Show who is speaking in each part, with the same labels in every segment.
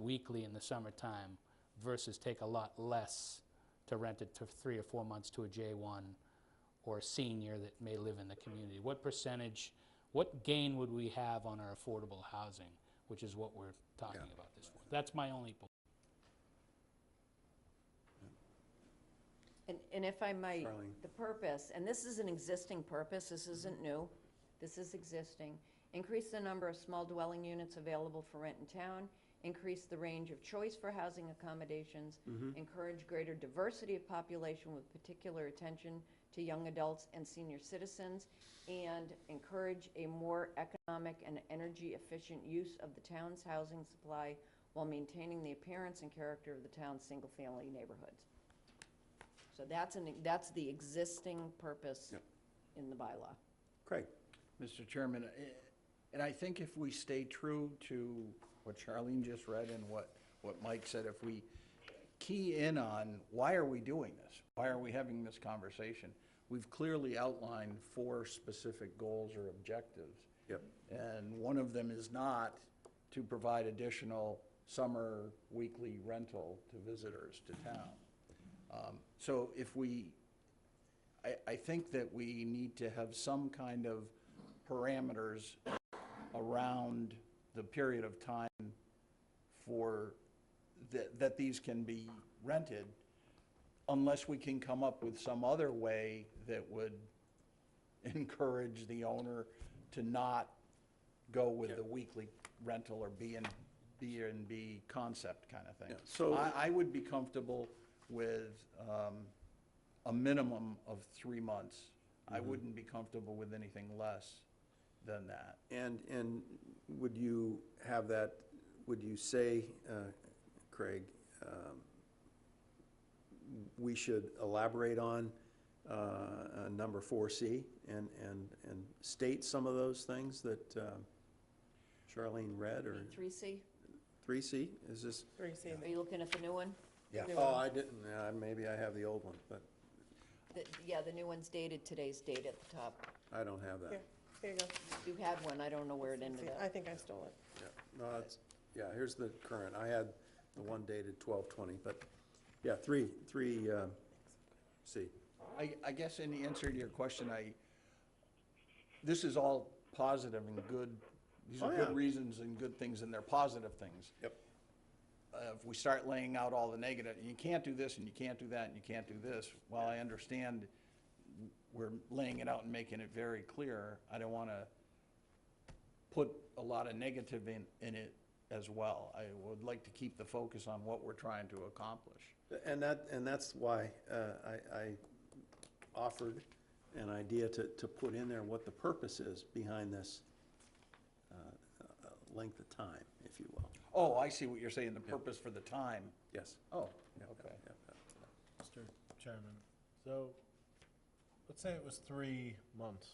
Speaker 1: weekly in the summertime versus take a lot less to rent it to three or four months to a J1 or a senior that may live in the community? What percentage, what gain would we have on our affordable housing, which is what we're talking about this for? That's my only point.
Speaker 2: And, and if I might,
Speaker 3: Charlene.
Speaker 2: the purpose, and this is an existing purpose, this isn't new, this is existing. Increase the number of small dwelling units available for rent in town, increase the range of choice for housing accommodations, encourage greater diversity of population with particular attention to young adults and senior citizens, and encourage a more economic and energy-efficient use of the town's housing supply while maintaining the appearance and character of the town's single-family neighborhoods. So that's an, that's the existing purpose
Speaker 3: Yep.
Speaker 2: in the bylaw.
Speaker 3: Craig?
Speaker 4: Mr. Chairman, eh, and I think if we stay true to what Charlene just read and what, what Mike said, if we key in on, why are we doing this? Why are we having this conversation? We've clearly outlined four specific goals or objectives.
Speaker 3: Yep.
Speaker 4: And one of them is not to provide additional summer weekly rental to visitors to town. Um, So if we I, I think that we need to have some kind of parameters around the period of time for, that, that these can be rented, unless we can come up with some other way that would encourage the owner to not go with the weekly rental or B and, B and B concept kind of thing.
Speaker 3: Yeah, so-
Speaker 4: I, I would be comfortable with, um, a minimum of three months. I
Speaker 3: Mm-hmm.
Speaker 4: wouldn't be comfortable with anything less than that.
Speaker 3: And, and would you have that, would you say, uh, Craig, um, we should elaborate on uh, uh, number 4C and, and, and state some of those things that um, Charlene read, or
Speaker 2: Three C,
Speaker 3: 3C? Is this?
Speaker 5: Three C,
Speaker 2: are you looking at the new one?
Speaker 3: Yeah.
Speaker 5: New
Speaker 3: Oh,
Speaker 5: one.
Speaker 3: I didn't, uh, maybe I have the old one, but
Speaker 2: The- Yeah, the new one's dated, today's date at the top.
Speaker 3: I don't have
Speaker 5: here,
Speaker 3: that.
Speaker 5: here you go.
Speaker 2: You had one, I don't know where it ended
Speaker 5: See,
Speaker 2: up.
Speaker 5: I think I stole it.
Speaker 3: Yeah, no, that's, yeah, here's the current. I had the one dated twelve twenty, but, yeah, three, three, uh, C.
Speaker 4: I, I guess in the answer to your question, I, this is all positive and good, these are
Speaker 3: Oh, yeah.
Speaker 4: good reasons and good things, and they're positive things.
Speaker 3: Yep.
Speaker 4: Uh, If we start laying out all the negative, you can't do this, and you can't do that, and you can't do this, while I understand we're laying it out and making it very clear, I don't want to put a lot of negative in, in it as well. I would like to keep the focus on what we're trying to accomplish.
Speaker 3: And that, and that's why, uh, I, I offered an idea to, to put in there what the purpose is behind this, uh, uh, length of time, if you will.
Speaker 4: Oh, I see what you're saying, the purpose for the time.
Speaker 3: Yes.
Speaker 4: Oh,
Speaker 3: Yeah,
Speaker 4: okay.
Speaker 3: yeah, yeah.
Speaker 6: Mr. Chairman, so, let's say it was three months,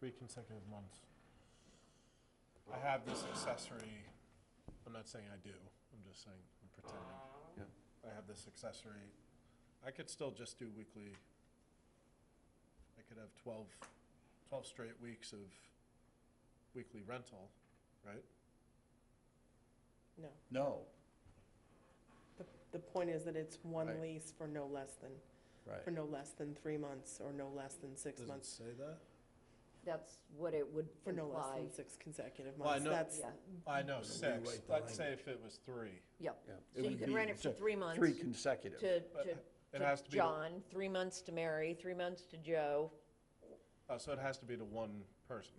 Speaker 6: three consecutive months. I have this accessory, I'm not saying I do, I'm just saying, I'm pretending. I have this accessory, I could still just do weekly. I could have 12 12 straight weeks of weekly rental, right?
Speaker 5: No.
Speaker 4: No,
Speaker 5: The, the point is that it's
Speaker 4: Right.
Speaker 5: one lease for no less than, for
Speaker 4: right.
Speaker 5: no less than three months or no less than six
Speaker 6: Does it
Speaker 5: months.
Speaker 6: say that?
Speaker 2: That's what it would
Speaker 5: For no less
Speaker 2: imply.
Speaker 5: than six consecutive
Speaker 6: Well, I
Speaker 5: months.
Speaker 6: know-
Speaker 5: That's,
Speaker 2: Yeah,
Speaker 6: I know, six,
Speaker 3: rewrite the
Speaker 6: let's say if it was three.
Speaker 2: yep.
Speaker 3: Yeah.
Speaker 2: So you can rent it for three months
Speaker 4: Three
Speaker 2: to,
Speaker 4: consecutive.
Speaker 2: to,
Speaker 6: But it
Speaker 2: to
Speaker 6: has to be the-
Speaker 2: John, three months to Mary, three months to Joe,
Speaker 6: Oh, so it has to be to one person.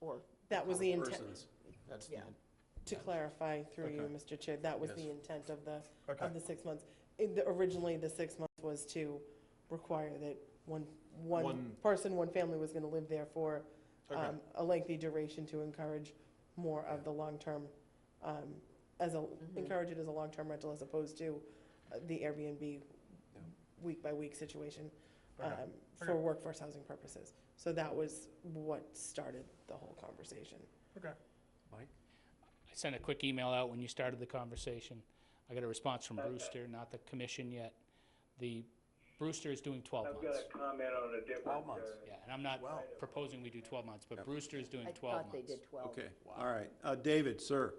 Speaker 2: or,
Speaker 5: that was the intent,
Speaker 3: Persons. That's
Speaker 2: yeah.
Speaker 5: to clarify through you,
Speaker 6: Okay.
Speaker 5: Mr. Chair, that was the
Speaker 3: Yes.
Speaker 5: intent of the,
Speaker 6: Okay.
Speaker 5: of the six months. In the- Originally, the six months was to require that one, one
Speaker 6: One-
Speaker 5: person, one family was gonna live there for
Speaker 6: Okay.
Speaker 5: um, a lengthy duration to encourage more of the long-term, um, as a, encourage it as a long-term rental as opposed to uh, the Airbnb week-by-week situation
Speaker 6: Okay.
Speaker 5: um, for
Speaker 6: Okay.
Speaker 5: workforce housing purposes. So that was what started the whole conversation.
Speaker 6: Okay.
Speaker 3: Mike?
Speaker 1: I sent a quick email out when you started the conversation. I got a response from Brewster, not the commission yet. The, Brewster is doing 12
Speaker 7: I've got
Speaker 1: months.
Speaker 7: a comment on a different.
Speaker 3: Twelve months.
Speaker 7: uh,
Speaker 1: Yeah, and I'm not proposing we do 12 months, but Brewster is doing
Speaker 2: I
Speaker 1: 12 months.
Speaker 2: thought they did twelve.
Speaker 3: Okay, all right. Uh, David, sir,